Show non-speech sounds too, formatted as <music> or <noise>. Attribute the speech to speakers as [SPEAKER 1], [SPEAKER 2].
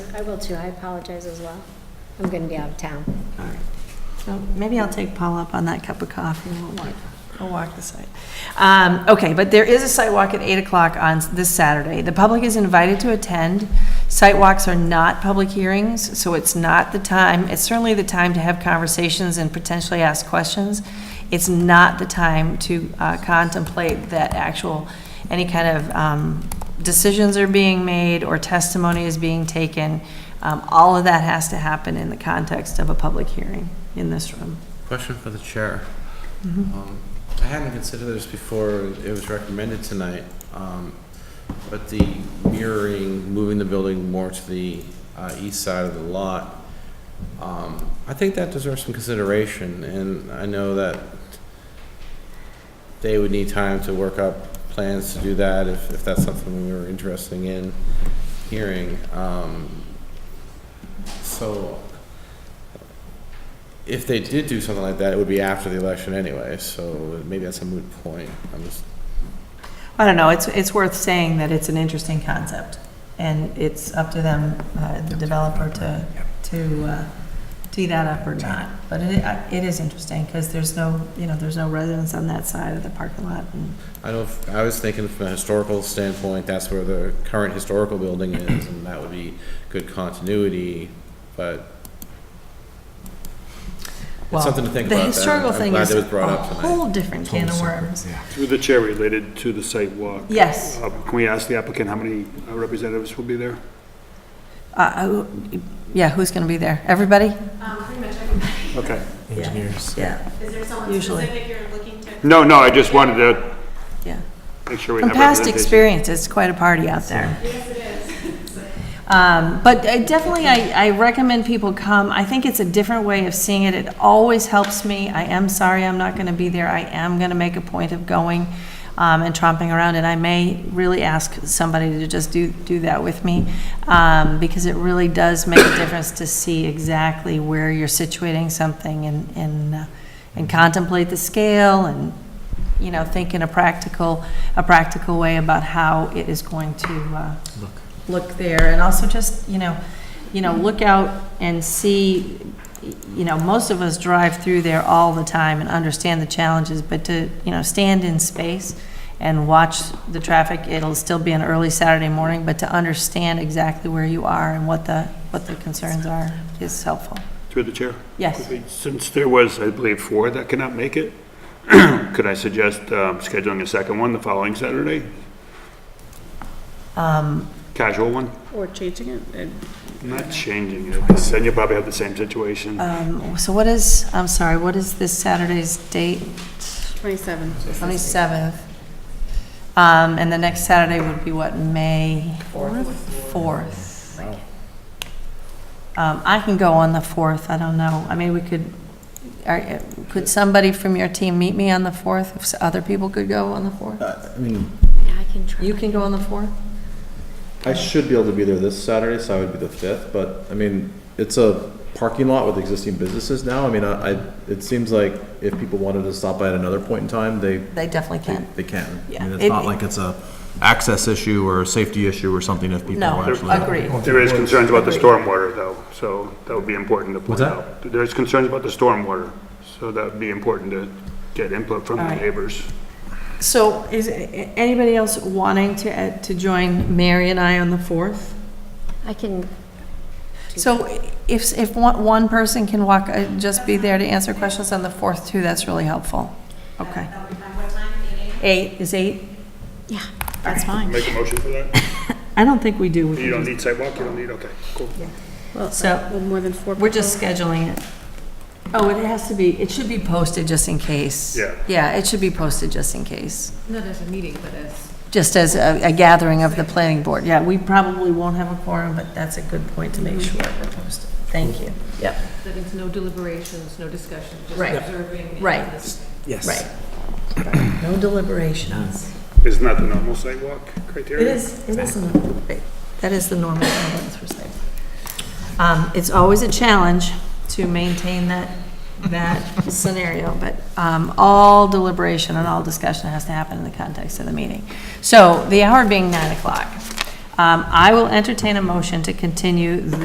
[SPEAKER 1] I will too, I apologize as well. I'm going to be out of town.
[SPEAKER 2] All right.
[SPEAKER 3] So maybe I'll take Paul up on that cup of coffee and we'll walk, we'll walk the site. Um, okay, but there is a site walk at eight o'clock on s- this Saturday. The public is invited to attend. Site walks are not public hearings, so it's not the time, it's certainly the time to have conversations and potentially ask questions. It's not the time to uh, contemplate that actual, any kind of, um, decisions are being made or testimony is being taken. Um, all of that has to happen in the context of a public hearing in this room.
[SPEAKER 2] Question for the chair. Um, I hadn't considered this before it was recommended tonight, um, but the mirroring, moving the building more to the uh, east side of the lot, um, I think that deserves some consideration, and I know that they would need time to work up plans to do that, if, if that's something we were interested in hearing. Um, So, if they did do something like that, it would be after the election anyway, so maybe that's a moot point. I'm just,
[SPEAKER 3] I don't know, it's, it's worth saying that it's an interesting concept, and it's up to them, uh, the developer, to, to uh, tee that up or not. But it, I- it is interesting, because there's no, you know, there's no residents on that side of the parking lot, and
[SPEAKER 2] I don't, I was thinking from a historical standpoint, that's where the current historical building is, and that would be good continuity, but
[SPEAKER 3] well,
[SPEAKER 2] it's something to think about.
[SPEAKER 3] The historical
[SPEAKER 2] I'm
[SPEAKER 3] thing
[SPEAKER 2] glad
[SPEAKER 3] is
[SPEAKER 2] it was
[SPEAKER 3] a
[SPEAKER 2] brought up tonight.
[SPEAKER 3] whole different can of worms.
[SPEAKER 4] Through the chair, related to the site walk.
[SPEAKER 3] Yes.
[SPEAKER 4] uh, Can we ask the applicant how many uh, representatives will be there?
[SPEAKER 3] Uh, who- Yeah, who's going to be there? Everybody?
[SPEAKER 5] Um, pretty much everybody.
[SPEAKER 4] Okay.
[SPEAKER 6] engineers.
[SPEAKER 3] Yeah.
[SPEAKER 5] Is there someone
[SPEAKER 3] Usually.
[SPEAKER 5] specific you're looking to?
[SPEAKER 4] No, no, I just wanted to
[SPEAKER 3] Yeah.
[SPEAKER 4] make sure we
[SPEAKER 3] From
[SPEAKER 4] have
[SPEAKER 3] past
[SPEAKER 4] representation.
[SPEAKER 3] experience, it's quite a party out there.
[SPEAKER 5] Yes, it is.
[SPEAKER 3] Um, But I definitely, I, I recommend people come. I think it's a different way of seeing it. It always helps me. I am sorry I'm not going to be there. I am going to make a point of going um, and tromping around, and I may really ask somebody to just do, do that with me, um, because it really does make a difference to see exactly where you're situating something and, and, uh, and contemplate the scale and, you know, think in a practical, a practical way about how it is going to uh, look there, and also just, you know, you know, look out and see, you know, most of us drive through there all the time and understand the challenges, but to, you know, stand in space and watch the traffic, it'll still be an early Saturday morning, but to understand exactly where you are and what the, what the concerns are is helpful.
[SPEAKER 4] Through the chair.
[SPEAKER 3] Yes,
[SPEAKER 4] Since there was, I believe, four that cannot make it, <clears throat> could I suggest um, scheduling a second one the following Saturday?
[SPEAKER 3] Um.
[SPEAKER 4] Casual one?
[SPEAKER 7] Or changing it, and
[SPEAKER 4] Not changing it, because then you'll probably have the same situation.
[SPEAKER 3] um, so what is, I'm sorry, what is this Saturday's date?
[SPEAKER 7] 27.
[SPEAKER 3] 27th. Um, And the next Saturday would be what, May? 4th. 4th. Um, I can go on the 4th, I don't know. I mean, we could, are- could somebody from your team meet me on the 4th? If s- other people could go on the 4th?
[SPEAKER 8] Uh,
[SPEAKER 2] I mean,
[SPEAKER 1] Yeah, I can try.
[SPEAKER 3] You can go on the 4th?
[SPEAKER 8] I should be able to be there this Saturday, so I would be the fifth, but, I mean, it's a parking lot with existing businesses now. I mean, I, I- it seems like if people wanted to stop by at another point in time, they,
[SPEAKER 3] They definitely
[SPEAKER 8] they
[SPEAKER 3] can.
[SPEAKER 8] they can. I
[SPEAKER 3] Yeah.
[SPEAKER 8] mean,
[SPEAKER 3] It-
[SPEAKER 8] it's not like it's a access issue or a safety issue or something if people
[SPEAKER 3] No,
[SPEAKER 8] are actually.
[SPEAKER 3] agreed.
[SPEAKER 4] There is concerns about the stormwater, though, so that would be important to point
[SPEAKER 8] What's that?
[SPEAKER 4] out. There is concerns about the stormwater, so that would be important to get input from the
[SPEAKER 3] Alright.
[SPEAKER 4] neighbors.
[SPEAKER 3] So is a- anybody else wanting to, uh, to join Mary and I on the 4th?
[SPEAKER 1] I can,
[SPEAKER 3] So if, if one, one person can walk, uh, just be there to answer questions on the fourth too, that's really helpful. Okay. Eight, is eight?
[SPEAKER 1] yeah, that's fine.
[SPEAKER 4] Make a motion for that?
[SPEAKER 3] I don't think we do. We
[SPEAKER 4] You
[SPEAKER 3] can
[SPEAKER 4] don't need sidewalk, you don't need, okay, cool.
[SPEAKER 7] Well,
[SPEAKER 3] So-
[SPEAKER 7] uh, well, more than four.
[SPEAKER 3] just- We're just scheduling it. Oh, it has to be, it should be posted just in case.
[SPEAKER 4] Yeah.
[SPEAKER 3] Yeah, it should be posted just in case,
[SPEAKER 5] Not as a meeting, but as.
[SPEAKER 3] just as a, a gathering of the planning board. Yeah, we probably won't have a quorum, but that's a good point to make sure we're posted. Thank you. Yep.
[SPEAKER 5] That means no deliberations, no discussion, just
[SPEAKER 3] Right.
[SPEAKER 5] observing. and
[SPEAKER 3] Right.
[SPEAKER 5] listening.
[SPEAKER 6] Yes.
[SPEAKER 3] Right. No deliberations.
[SPEAKER 4] Isn't that the normal sidewalk criteria?
[SPEAKER 3] It is, it is, a normal- right. that is the normal ambulance for site. Um, It's always a challenge to maintain that, that scenario, but um, all deliberation and all discussion has to happen in the context of the meeting. So the hour being nine o'clock, um, I will entertain a motion to continue